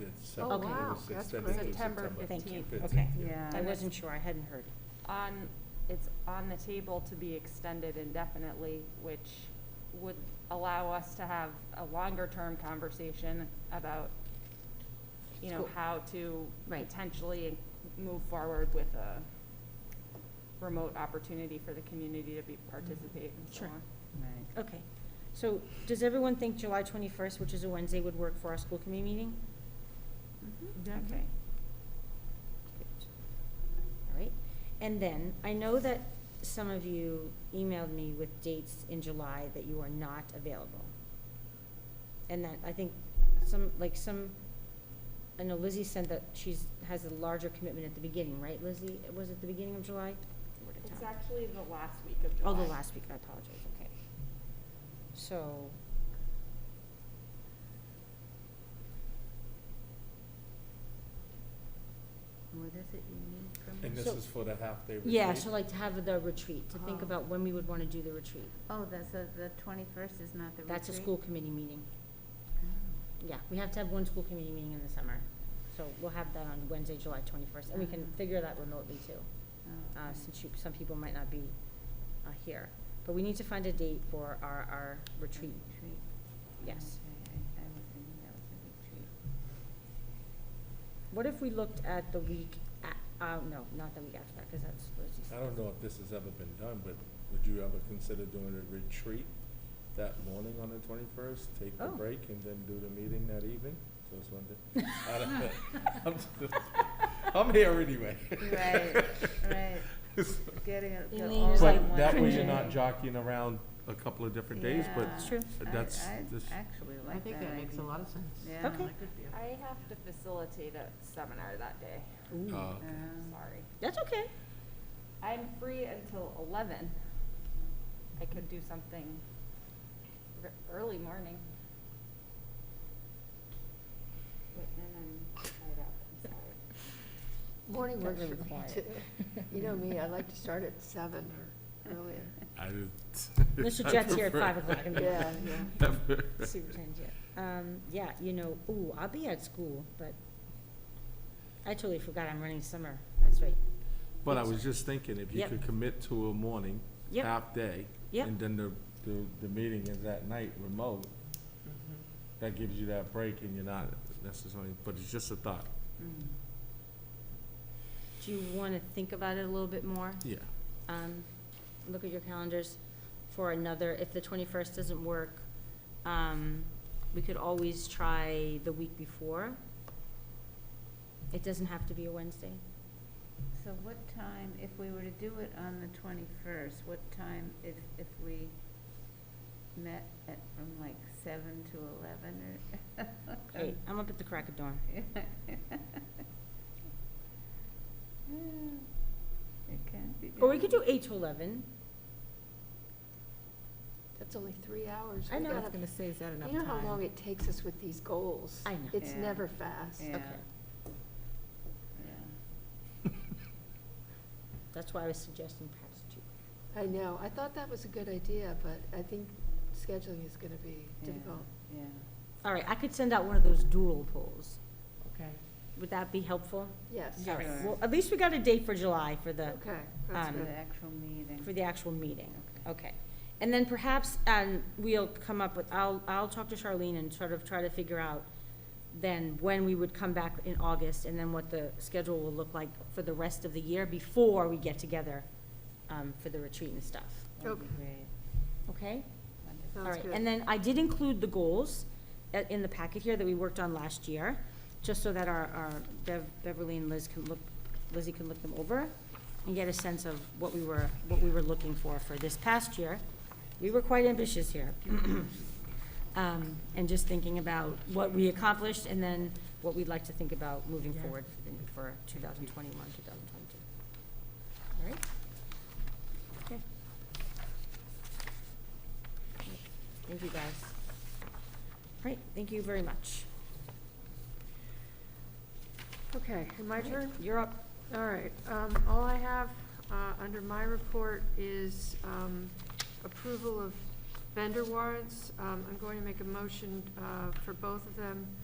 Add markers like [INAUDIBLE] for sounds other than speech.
Oh, Okay. wow, It was that's extended to great. September September Thank you. 15th. Okay. Yeah. I wasn't sure, I hadn't heard. on, it's on the table to be extended indefinitely, which would allow us to have a longer-term conversation about, you know, School. how to Right. potentially move forward with a remote opportunity for the community to be, participate and so Mm-hmm. Sure. on. Okay, so does everyone think July 21st, which is a Wednesday, would work for our school committee meeting? Mm-hmm. Okay. All right, and then, I know that some of you emailed me with dates in July that you are not available. And that, I think, some, like some, I know Lizzie sent that she's, has a larger commitment at the beginning, right, Lizzie? Was it the beginning of July? Word of It's time. actually the last week of July. Oh, the last week, I apologize, okay. So. What is it you need from us? And this So- is for the half-day retreat? Yeah, so like to have the retreat, to think Oh. about when we would want to do the retreat. Oh, that's, a- the twenty-first is not the retreat? That's a school committee meeting. Oh. Yeah, we have to have one school committee meeting in the summer. So we'll have that on Wednesday, July twenty-first, and we can Uh-huh. figure that remotely too, Oh, uh, okay. since you, some people might not be, uh, here. But we need to find a date for our, our retreat. Retreat. Yes. Okay, I I was thinking that was a retreat. What if we looked at the week, a- uh, no, not the week after that, because that's Lizzie's. I don't know if this has ever been done, but would you ever consider doing a retreat that morning on the twenty-first? Take the Oh. break and then do the meeting that evening? So it's one [LAUGHS] day. I don't- I'm just- [LAUGHS] I'm here anyway. Right, right. [LAUGHS] Getting it. the Elaine is all like in But one that way you're day. not jockeying around a couple of different days, but Yeah. It's true. that's- I- I this- actually like that I think that makes a idea. lot of sense. Yeah. Okay. I have to facilitate a seminar that day, Ooh. Uh, okay. Um, sorry. That's okay. I'm free until eleven. I could do something r- early morning. But then I'm tied up, I'm sorry. Morning Got works really for me, quiet. [LAUGHS] too. You know me, I like to start at seven or [LAUGHS] earlier. I did- Mr. [LAUGHS] I Jet's here at prefer- five [LAUGHS] o'clock in the morning. Yeah, yeah. Superintendent, yeah. Um, yeah, you know, ooh, I'll be at school, but I totally forgot I'm running summer. That's right. But I was just thinking, if you Yep. could commit to a morning, Yep. half-day, Yep. and then the, the, the meeting is at night remote, that gives you that break and you're not necessarily, but it's just a thought. mm. Do you want to think about it a little bit more? [LAUGHS] Yeah. Um, look at your calendars for another, if the twenty-first doesn't work, um, we could always try the week before. It doesn't have to be a Wednesday. So what time, if we were to do it on the twenty-first, what time if, if we met at, from like seven to eleven or? [LAUGHS] Um, Hey, I'm up at the crack of dawn. It can be. Or we done. could do eight to eleven. That's only three hours. I We know. gotta- I was gonna say, is that You know how long it takes us with these goals? I know. It's Yeah. never fast. Yeah, Okay. yeah. That's why I was suggesting perhaps two. I know, I thought that was a good idea, but I think scheduling is gonna be difficult. Yeah, All right, I could send out one of those doodle polls. Okay. Would that be helpful? Yes, All right, Sure. well, at least we got a date for July for the, okay, that's Um, for good. the actual meeting. for the actual meeting. Okay. Okay. And then perhaps, um, we'll come up with, I'll, I'll talk to Charlene and sort of try to figure out then when we would come back in August and then what the schedule will look like for the rest of the year before we get together, um, for the retreat and stuff. That'd be Okay. great. Okay? Wonderful. All Sounds right, good. and then I did include the goals uh, in the packet here that we worked on last year, just so that our, our Bev- Beverly and Liz can look, Lizzie can look them over and get a sense of what we were, what we were looking for for this past year. We were quite ambitious here. [CLEARS THROAT] Um, And just thinking about what we accomplished and then what we'd like to think about moving Yeah. forward in- for 2021, 2022. All right? Okay. Thank you, guys. All right, thank you very much. Okay, my turn? You're up. All right, um, all I have, uh, under my report is, um, approval of vendor warrants. Um, I'm going to make a motion, uh, for both of them.